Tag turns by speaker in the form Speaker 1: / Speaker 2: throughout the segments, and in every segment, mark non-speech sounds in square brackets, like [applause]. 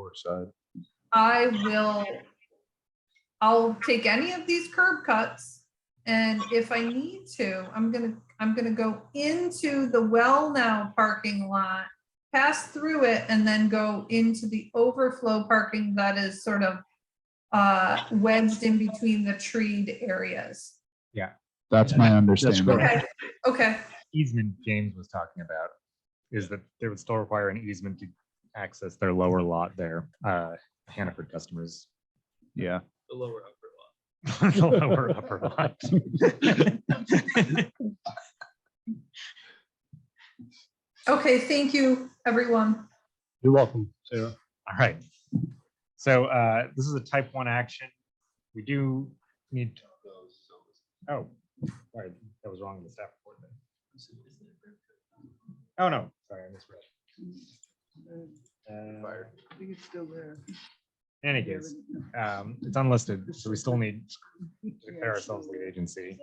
Speaker 1: curbside.
Speaker 2: I will, I'll take any of these curb cuts. And if I need to, I'm gonna, I'm gonna go into the well now parking lot, pass through it and then go into the overflow parking that is sort of uh, wedged in between the treed areas.
Speaker 3: That's my understanding.
Speaker 1: correct.
Speaker 2: Okay, okay,
Speaker 4: easement James was talking about is that they would still require an easement to access their lower lot there, uh, Hannaford customers.
Speaker 3: Yeah.
Speaker 5: the lower upper
Speaker 4: [laughs]
Speaker 5: lot.
Speaker 4: The lower upper lot.
Speaker 2: okay, thank you, everyone.
Speaker 6: You're welcome, Sarah.
Speaker 4: All right. So, uh, this is a type one action. We do need, oh, sorry, that was wrong in the staff report. then. Oh, no, sorry, I misread. Uh,
Speaker 7: I think it's still there.
Speaker 4: In any case, um, it's unlisted, so we still need to declare
Speaker 7: Yeah,
Speaker 4: ourselves lead agency.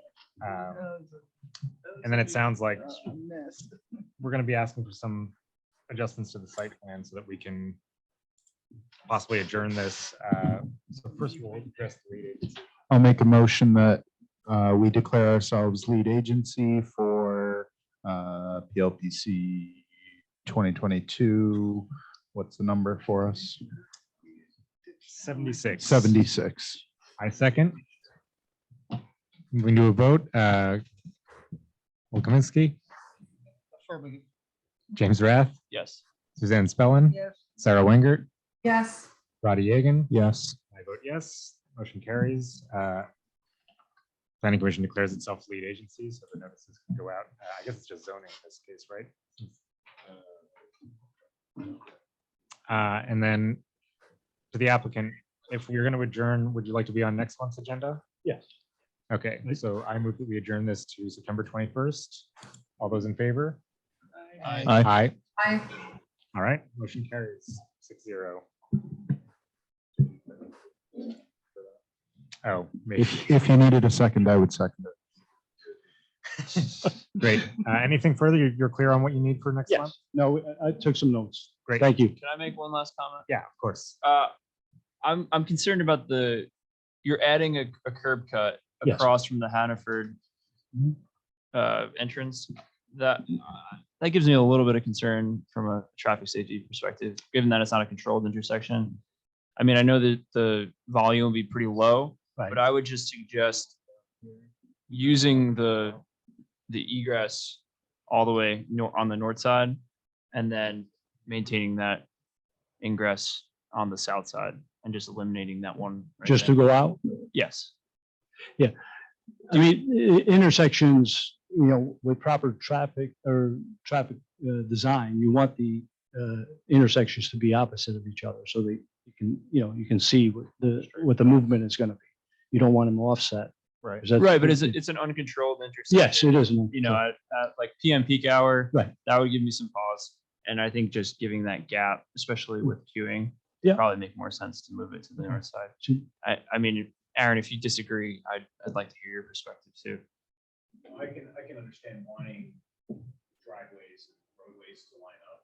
Speaker 4: Um,
Speaker 7: And
Speaker 4: And then it sounds like
Speaker 7: Mess.
Speaker 4: we're gonna be asking for some adjustments to the site plan so that we can possibly adjourn this. Uh, So first we'll address the lead agency.
Speaker 3: I'll make a motion that uh, we declare ourselves lead agency for uh, PLPC 2022. What's the number for us?
Speaker 4: 76.
Speaker 3: 76.
Speaker 4: I second. Moving to a vote, uh, Will Kaminsky,
Speaker 7: Affirmative.
Speaker 4: James Rath,
Speaker 5: Yes.
Speaker 4: Suzanne Spellin,
Speaker 7: Yes.
Speaker 4: Sarah Wengert,
Speaker 2: Yes,
Speaker 4: Roddy Yagan.
Speaker 3: Yes.
Speaker 4: I vote yes, motion carries. Uh, Planning Commission declares itself lead agency, so the notices can go out. Uh, I guess it's just zoning in this case, right? Uh, And then to the applicant, if we are going to adjourn, would you like to be on next month's agenda?
Speaker 6: Yes.
Speaker 4: Okay, so I move that we adjourn this to September 21st. All those in favor?
Speaker 7: Aye.
Speaker 3: Aye.
Speaker 4: Aye.
Speaker 2: I,
Speaker 4: All right, motion carries six zero. Oh, maybe.
Speaker 3: If, if you needed a second, I would second it.
Speaker 4: Great. Uh, Anything further? You're you're clear on what you need for next month?
Speaker 6: Yes. No, I- I took some notes.
Speaker 4: Great.
Speaker 6: Thank you.
Speaker 5: Can I make one last comment?
Speaker 4: Yeah, of course.
Speaker 5: Uh, I'm, I'm concerned about the, you're adding a, a curb cut
Speaker 6: Yes.
Speaker 5: across from the Hannaford
Speaker 6: Mhm.
Speaker 5: uh, entrance. That, uh, that gives me a little bit of concern from a traffic safety perspective, given that it's not a controlled intersection. I mean, I know that the volume will be pretty low, but I would just suggest using the, the egress all the way nor- on the north side and then maintaining that ingress on the south side and just eliminating that one. right
Speaker 6: Just to
Speaker 5: there.
Speaker 6: go out,
Speaker 5: Yes.
Speaker 6: I mean, i- intersections, you know, with proper traffic or traffic uh, design, you want the uh, intersections to be opposite of each other so that you can, you know, you can see what the, what the movement is going to be. You don't want them offset.
Speaker 4: Right.
Speaker 6: 'cause that's-
Speaker 5: Right, but it's, a- it's an uncontrolled intersection.
Speaker 6: Yes, it is. an-
Speaker 5: You know, at, at like PM peak hour.
Speaker 6: Right.
Speaker 5: That would give me some pause. And I think just giving that gap, especially with queuing.
Speaker 6: Hmm. Yeah. Hmm.
Speaker 5: Probably make more sense to move it to the north side.
Speaker 6: Sure.
Speaker 5: I, I mean, Aaron, if you disagree, I'd, I'd like to hear your perspective too.
Speaker 8: I can, I can understand wanting driveways, and roadways to line up.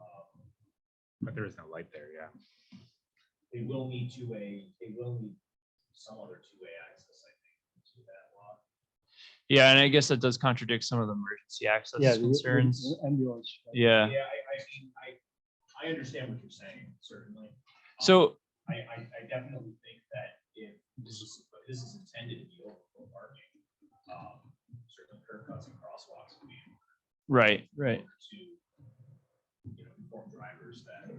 Speaker 8: Um,
Speaker 4: But there is no light there, yeah.
Speaker 8: They will need two-way, they will need some other two-way access, I think, to that lot.
Speaker 5: Yeah, and I guess that does contradict some of the emergency
Speaker 6: Yeah,
Speaker 5: access
Speaker 6: the- the-
Speaker 5: concerns.
Speaker 6: the Ambulance.
Speaker 5: Yeah,
Speaker 8: Yeah, I, I mean, I, I understand what you're saying, certainly. Um,
Speaker 5: so,
Speaker 8: I, I, I definitely think that if this is, but this is intended to be overflow parking, um, certain curb cuts and crosswalks would be important.
Speaker 5: right, right.
Speaker 8: to, you know, inform drivers that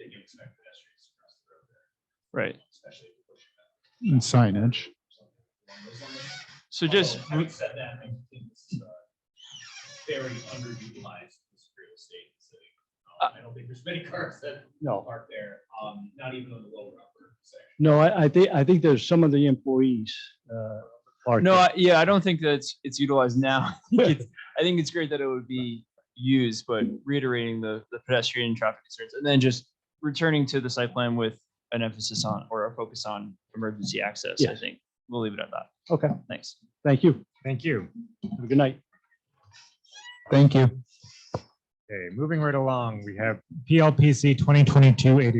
Speaker 8: they can expect pedestrians to cross the road there.
Speaker 5: Right.
Speaker 8: Especially if you're pushing them.
Speaker 3: And signage.
Speaker 8: Something along those lines.
Speaker 5: So just,
Speaker 8: Although, Having said that, I think this is a very underutilized piece of real estate in the city.
Speaker 5: Uh,
Speaker 8: Um, I don't think there's many [laughs] cars that
Speaker 6: No.
Speaker 8: park there, um, not even on the lower upper section.
Speaker 6: No, I, I think, I think there's some of the employees. uh, are-
Speaker 5: no, I- yeah, I don't think that's, it's utilized now. [laughs] I think it's- I think it's great that it would be used, but reiterating the, the pedestrian and traffic concerns and then just returning to the site plan with an emphasis on or a focus on emergency access, I
Speaker 6: Yes.
Speaker 5: think. We'll leave it at that.
Speaker 6: Okay,
Speaker 5: Thanks.
Speaker 6: thank you.
Speaker 4: Thank you.
Speaker 6: Have a good night.
Speaker 3: Thank you.
Speaker 4: Okay, moving right along, we have PLPC 2022